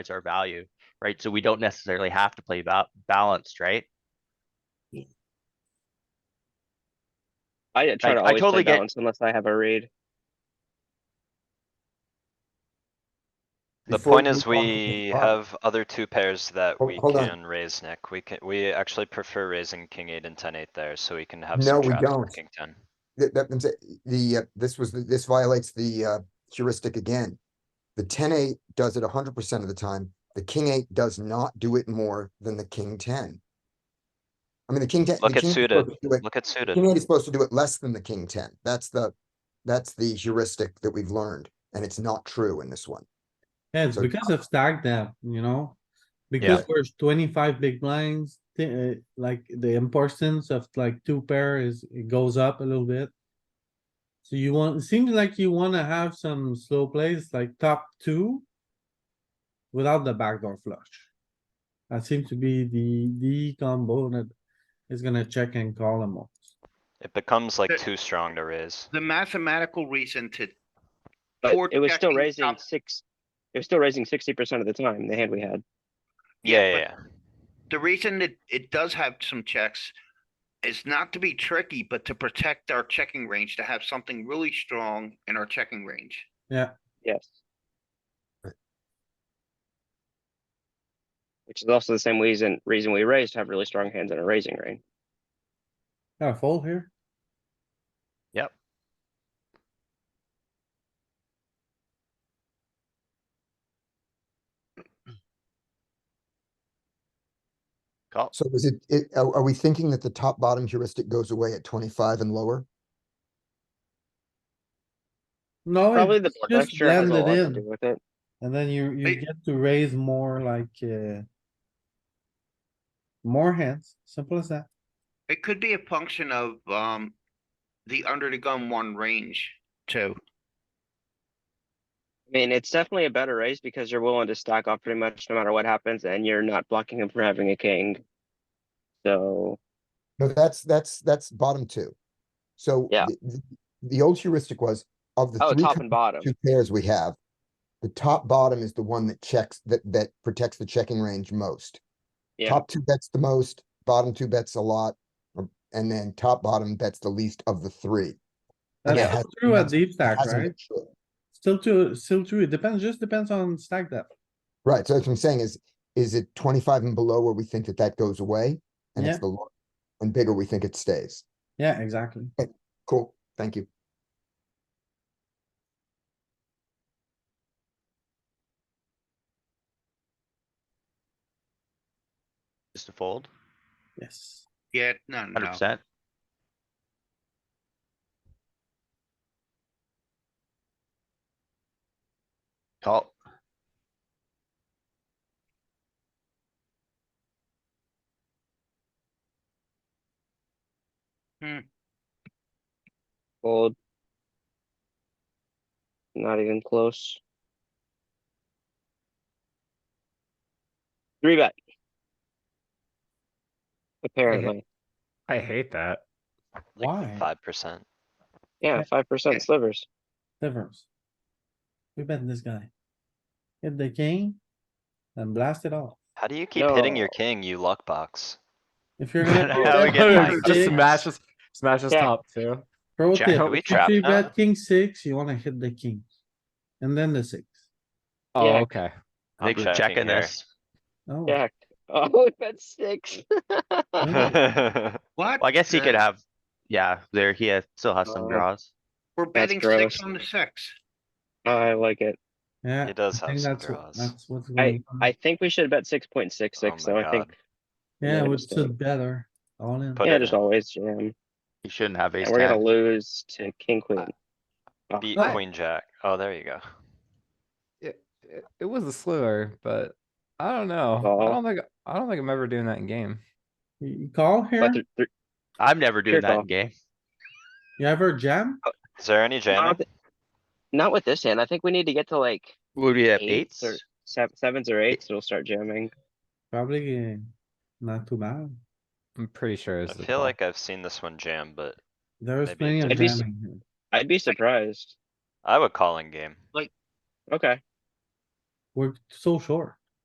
our value, right? So we don't necessarily have to play ba- balanced, right? I try Like, to I always totally play get- balance unless I have a read. The Before point you is come to we pot, have other two pairs that Hol- we hold on. can raise, Nick. We can, we actually prefer raising king eight and ten eight there, so we can have No, some we traps for don't. king ten. That, that, that's it. the, uh, this was, the- this violates the, uh, heuristic again. The ten eight does it hundred percent of the time. The king eight does not do it more than the king ten. I mean, the king ten. the Look at king 8 is suited. supposed to do it- Look at King suited. eight is supposed to do it less than the king ten. That's the, that's the heuristic that we've learned, and it's not true in this one. Yeah, it's So- because of stack depth, you know? Because there's twenty-five big blinds, the, uh, like the importance of like two pair is, it goes up a little bit. So you want, it seems like you wanna have some slow plays like top two. Without the backdoor flush. That seems to be the, the combo that is gonna check and call them all. It becomes like The- too strong to raise. The mathematical reason to. But Or it was still checking raising top- six, it was still raising sixty percent of the time, the hand we had. Yeah, yeah, but yeah. The reason that it does have some checks is not to be tricky, but to protect our checking range, to have something really strong in our checking range. Yes. Which is also the same reason, reason we raised to have really strong hands in a raising range. Got a fold here? Call. So is it, it, are, are we thinking that the top bottom heuristic goes away at twenty-five and lower? No, Probably it's the board Oh, just texture has a blended lot to in. do with it. And then you, you Hey. get to raise more like, uh. More hands, simple as that. It could be a function of, um, the under the gun one range too. I mean, it's definitely a better raise because you're willing to stack off pretty much no matter what happens and you're not blocking him from having a king. So, No, that's, that's, that's bottom two. So. Yeah. the- The, the old heuristic was of the oh, three top and bottom. two pairs we have, the top bottom is the one that checks, that, that protects the checking range most. Yeah. Top two bets the most, bottom two bets a lot, or- and then top bottom bets the least of the three. And it That's has- still true at that's- deep stack, hasn't been right? true. Still true, still true. It depends, just depends on stack depth. Right, so that's what I'm saying is, is it twenty-five and below where we think that that goes away? And it's Yeah. the, lo- and bigger we think it stays. Yeah, exactly. Cool, thank you. Just a fold, Yes. Yeah, no, no, hundred no. percent. Call. Fold. Not even close. Three bet. Apparently, I hate that. Why? Five percent. yeah, five Okay. percent slivers. Difference. We bet this guy. Hit the king. And blast it off. How do you keep hitting your No. king, you luck box? If you're gonna. How we bet get king like Just six, smash us, smash us Yeah. top too. Pro Jack, tip, do we if trap you now? bet king six, you wanna hit the king. And then the six. Oh, Yeah. okay. I'm Nick's checking checking here. this. Oh, Jack. Oh, we bet six. What? Well, I guess he could the- have, yeah, there, he has- still has some Oh. draws. We're betting gross. six on the six. Oh, I like it. yeah. He does I have think some that's what- draws. That's what's I, going on. I think we should bet six point six Oh six, my though I think, God. Yeah, Yeah, which just, uh, is better, all in. put yeah, it just in. always jam. He shouldn't have ace And we're gonna ten. lose to king queen. Oh, Beat Right. queen jack. Oh, there you go. It, it, it was a slur, but I don't know. I Oh. don't think I don't think I'm ever doing that in game. You you call here, But th- th- I'm never doing Pure that call. in game. you ever jam? Is there any not jamming? with- Not with this hand. I think we need to get to like Would we have eights? eights or sev- sevens or eights, it'll start jamming. Probably uh, not too bad. I'm pretty sure. I It's the feel call. like I've seen this one jam, but There's Maybe plenty of I'd be s- jamming here. I'd be surprised. I would call in game. Okay, We're so short.